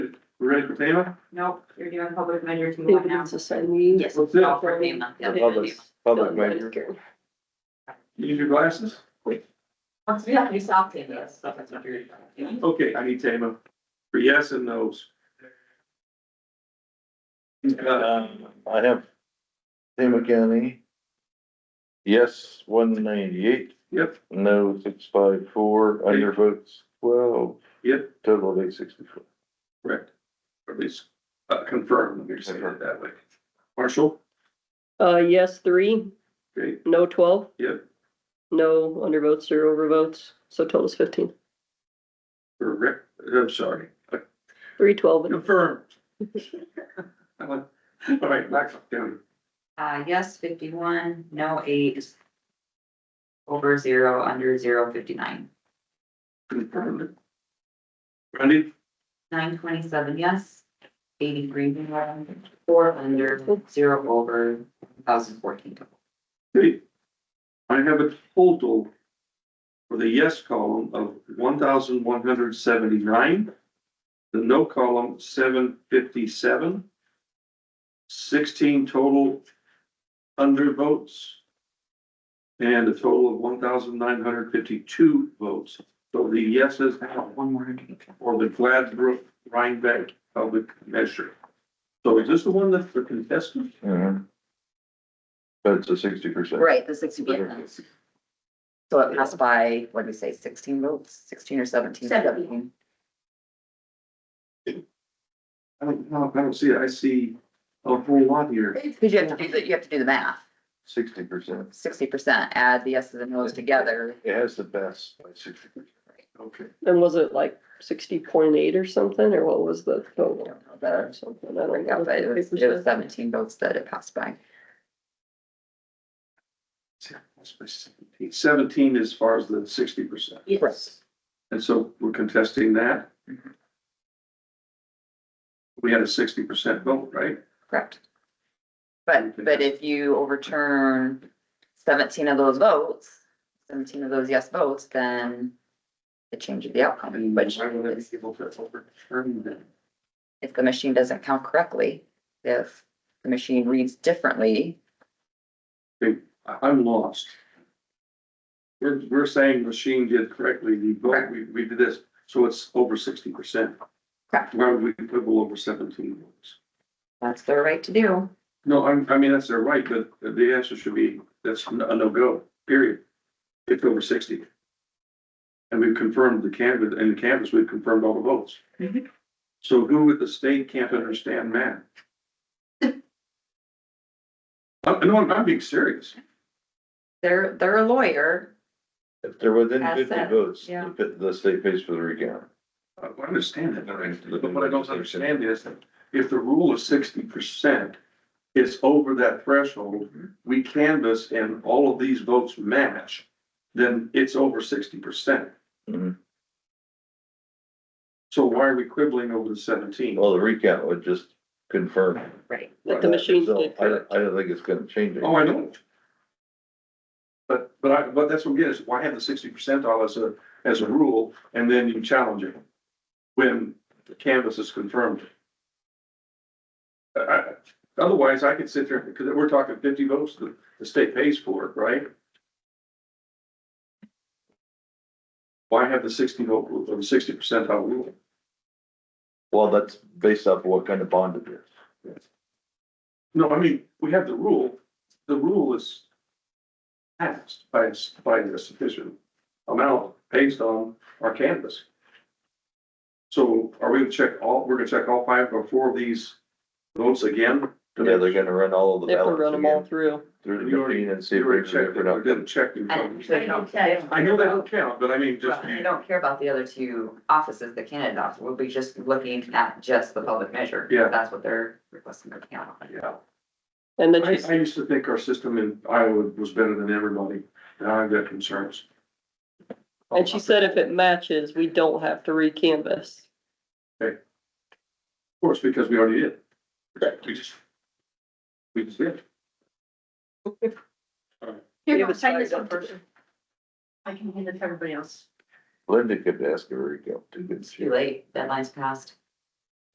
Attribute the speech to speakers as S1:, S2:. S1: ready for payment?
S2: Nope, you're doing public measure two one now.
S3: Dividends aside, me.
S2: Yes.
S1: What's that?
S2: All for payment. yeah.
S4: Public, public measure.
S1: You Need your glasses?
S2: Once we have new soft data, that's stuff that's not very.
S1: Okay, I need Tama for yes and no's. Uh,
S4: Um, I have Tama County. Yes, one ninety-eight,
S1: Yep,
S4: no, six five four, under votes twelve,
S1: yep,
S4: total of eight sixty-four.
S1: correct. Or at least uh, confirm, let me say it that way. Marshall,
S3: Uh, yes, three,
S1: okay,
S3: no twelve,
S1: yep,
S3: no undervotes or overvotes, so total is fifteen.
S1: or Rick, I'm sorry, Uh,
S3: Three, twelve, and
S1: confirm. I'm like, All right, Blackhawk County,
S2: Uh, yes, fifty-one, no eight. Over zero, under zero, fifty-nine.
S1: confirmed. Randy,
S2: Nine twenty-seven, yes. Eighty-three, no, four under, zero over, thousand fourteen.
S1: okay. I have a total for the yes column of one thousand one hundred seventy-nine. The no column, seven fifty-seven. Sixteen total undervotes. And a total of one thousand nine hundred fifty-two votes. So the yeses have
S2: One more hundred.
S1: or the Gladbrook Rhinebeck public measure. So is this the one that's for contestants?
S4: Mhm. But it's a sixty percent.
S5: Right, the sixty percent. So it passed by, what do we say, sixteen votes, sixteen or seventeen?
S2: Seventeen.
S1: I don't, no, I don't see it. I see a whole lot here.
S5: Because you have to do, the- you have to do the math,
S4: Sixty percent.
S5: sixty percent, add the yeses and noes together.
S4: It has the best by sixty percent.
S1: Okay.
S3: was it like sixty point eight or something, or what was the
S1: Oh.
S5: I
S3: total?
S5: don't know the
S4: Uh,
S3: Or something, I don't know.
S5: breakout, but it was, it was seventeen votes that it passed by.
S1: That's my Seventeen 17 as far as the sixty percent.
S5: Yes.
S1: And so we're contesting that.
S5: Mhm.
S1: We had a sixty percent vote, right?
S5: Correct. But, but if you overturn seventeen of those votes, seventeen of those yes votes, then it changes the outcome,
S1: And
S5: which
S1: why would I be
S5: is-
S1: able to overturn that?
S5: if the machine doesn't count correctly, if the machine reads differently,
S1: I- I'm lost. We're, we're saying machine did correctly, the vote, we, we did this, so it's over sixty percent.
S5: Correct.
S1: Why would we quibble over seventeen votes?
S5: that's their right to do.
S1: No, I'm, I mean, that's their right, but the answer should be, that's a no-go, period. It's over sixty. And we've confirmed the canvas, in the canvas, we've confirmed all the votes.
S2: Mhm.
S1: So who at the state can't understand math? I, no, I'm, I'm being serious.
S5: They're, they're a lawyer.
S4: If they're within
S2: That's
S4: fifty
S2: it,
S4: votes,
S2: yeah.
S4: the the state pays for the recount.
S1: I I understand that, but what I don't understand is that if the rule is sixty percent, it's over that threshold, we canvass and all of these votes match, then it's over sixty percent.
S4: Mhm.
S1: So why are we quibbling over the seventeen?
S4: Well, the recount would just confirm.
S5: Right.
S3: That the machine
S4: So uh,
S3: did
S4: I don't,
S3: correct.
S4: I don't think it's gonna change it.
S1: Oh, I know. But, but I, but that's what it is, why have the sixty percentile as a, uh, as a rule, and then you challenge it? When the canvas is confirmed. I- I- otherwise, I could sit there, because we're talking fifty votes, the, the state pays for it, right? Why have the sixty vote, rule or the sixty percentile rule?
S4: Well, that's based off what kind of bond it is.
S1: No, I mean, we have the rule, the rule is passed by, a s- by a sufficient amount based on our canvas. So are we gonna check all, we're gonna check all five or four of these votes again?
S4: Yeah, they're gonna run all of the
S3: They have to run
S4: ballots
S3: them all
S4: again
S3: through.
S4: through the
S1: You already-
S4: machine and see
S1: You
S4: if we
S1: already
S4: can
S1: checked,
S4: different
S1: I
S4: outcome.
S1: didn't check. the-
S2: I know
S1: I know that don't count, but I mean, just,
S2: Well, I don't care about the other two offices, the Canada office, we'll be just looking at just the public measure.
S1: Yeah.
S2: That's what they're requesting to count on.
S1: yeah.
S3: And then
S1: I,
S3: just,
S1: I used to think our system in Iowa was better than everybody. Now I've got concerns.
S3: and she said if it matches, we don't have to re-canvas.
S1: Of course, because we already did. We just, we just did.
S3: Here, go, sign this one first.
S6: I can hand it to everybody else.
S4: Linda could ask a recount too, couldn't
S2: It's
S4: she?
S2: too late, deadline's passed.